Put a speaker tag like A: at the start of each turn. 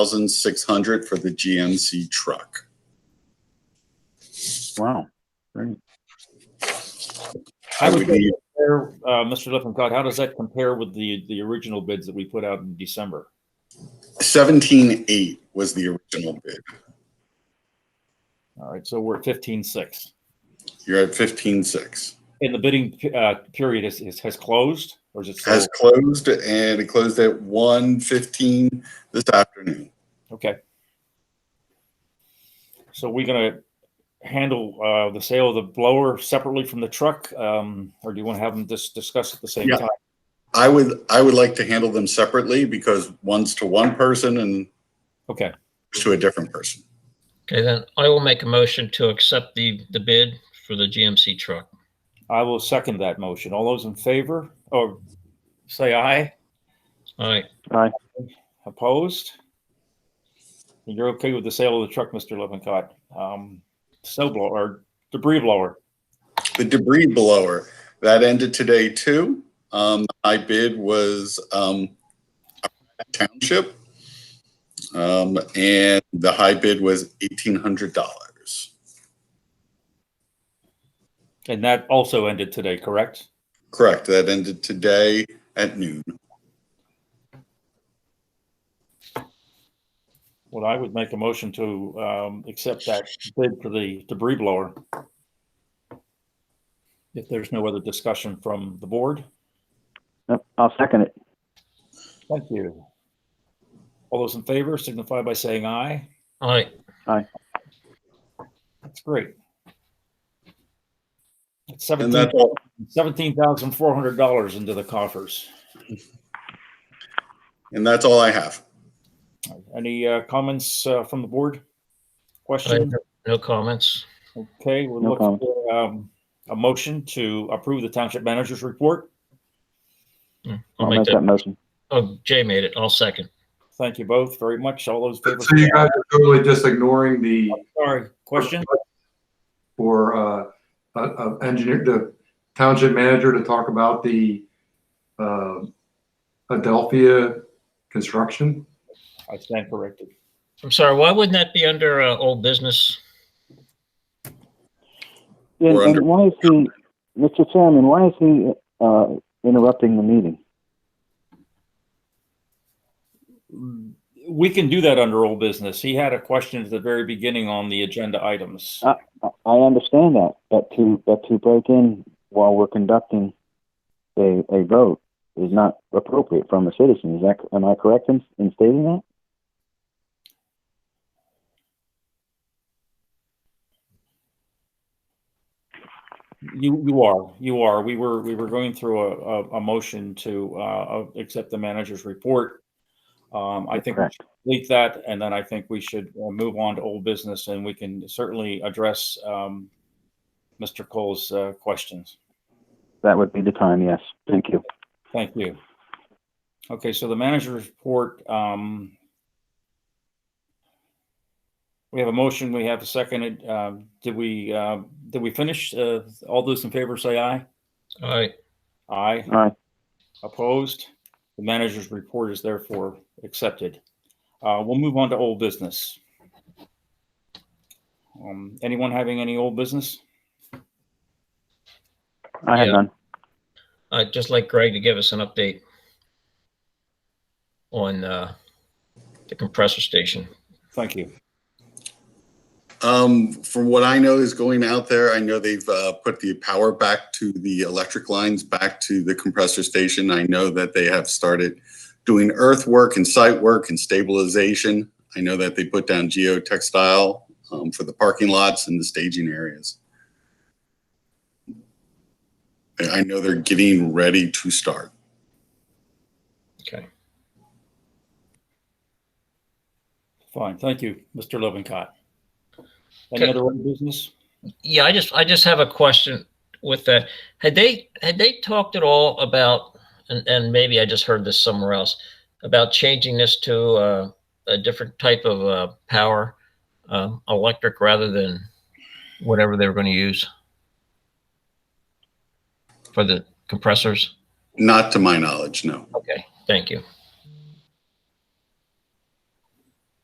A: thousand six hundred for the GMC truck.
B: Wow. Great.
C: I
A: I
C: would
A: would need,
C: compare, uh, Mr. Lippincott, how does that compare with the, the original bids that we put out in December?
A: seventeen eight was the original bid.
C: All right, so we're at fifteen six.
A: You're at fifteen six.
C: And the bidding, uh, period is, is, has closed or is it still?
A: Has closed and it closed at one fifteen this afternoon.
C: Okay. So we're gonna handle, uh, the sale of the blower separately from the truck, um, or do you want to have them just discussed at the same
A: Yeah.
C: time?
A: I would, I would like to handle them separately because one's to one person and
C: Okay,
A: to a different person.
D: Okay, then I will make a motion to accept the, the bid for the GMC truck.
C: I will second that motion. All those in favor or say aye,
D: All right,
C: opposed? You're okay with the sale of the truck, Mr. Lippincott? Um, snow blower, or debris blower?
A: The debris blower, that ended today too. Um, I bid was, um, township. Um, and the high bid was eighteen hundred dollars.
C: And that also ended today, correct?
A: Correct, that ended today at noon.
C: Well, I would make a motion to, um, accept that bid for the debris blower. If there's no other discussion from the board,
B: Yep, I'll second it.
C: thank you. All those in favor signify by saying aye.
D: all right.
C: That's great. It's
A: And
C: seventeen,
A: that's all,
C: seventeen thousand four hundred dollars into the coffers.
A: and that's all I have.
C: Any, uh, comments, uh, from the board?
D: I have
C: Question?
D: No comments.
C: Okay, we'll
B: No
C: look
B: comment.
C: for, um, a motion to approve the township manager's report.
D: I'll
B: I'll
D: make
B: make that
D: that,
B: motion.
D: oh, Jay made it. I'll second.
C: Thank you both very much. All those. in favor
E: So
C: say
E: you
C: aye.
E: guys are totally just ignoring the
C: Sorry, question?
E: for uh, uh, uh, engineer, the township manager to talk about the uh, Adelphia construction?
C: I stand corrected.
D: I'm sorry, why wouldn't that be under, uh, old business?
B: And,
A: We're
B: and
A: under-
B: why is he, Mr. Chairman, why is he uh, interrupting the meeting?
C: We can do that under old business. He had a question at the very beginning on the agenda items.
B: I, I understand that, but to but to break in while we're conducting a, a vote is not appropriate from a citizen. Is that am I correct in, in stating that?
C: You, you are, you are. We were, we were going through a, a, a motion to, uh, uh, accept the manager's report. Um, I think we
B: Correct.
C: should complete that, and then I think we should uh, move on to old business, and we can certainly address, um, Mr. Cole's, uh, questions.
B: That would be the time. Yes. Thank you.
C: Thank you. Okay, so the manager's report, um, we have a motion, we have a second. Uh, did we, uh, did we finish? Uh, all those in favor say aye.
D: All right,
C: Aye.
B: Aye.
C: Opposed? The manager's report is therefore accepted. Uh, we'll move on to old business. Um, anyone having any old business?
B: I have
D: Yeah.
B: none.
D: I'd just like Greg to give us an update on, uh, the compressor station.
C: Thank you.
A: Um, from what I know is going out there, I know they've uh, put the power back to the electric lines, back to the compressor station. I know that they have started doing earthwork and site work and stabilization. I know that they put down geotextile um, for the parking lots and the staging areas. And I know they're getting ready to start.
D: Okay.
C: Fine, thank you, Mr. Lovencott. Any
D: Okay.
C: other old business?
D: Yeah, I just, I just have a question with that. Had they, had they talked at all about, and, and maybe I just heard this somewhere else, about changing this to, uh, a different type of, uh, power, um, electric rather than whatever they were going to use for the compressors?
A: Not to my knowledge, no.
D: Okay, thank you.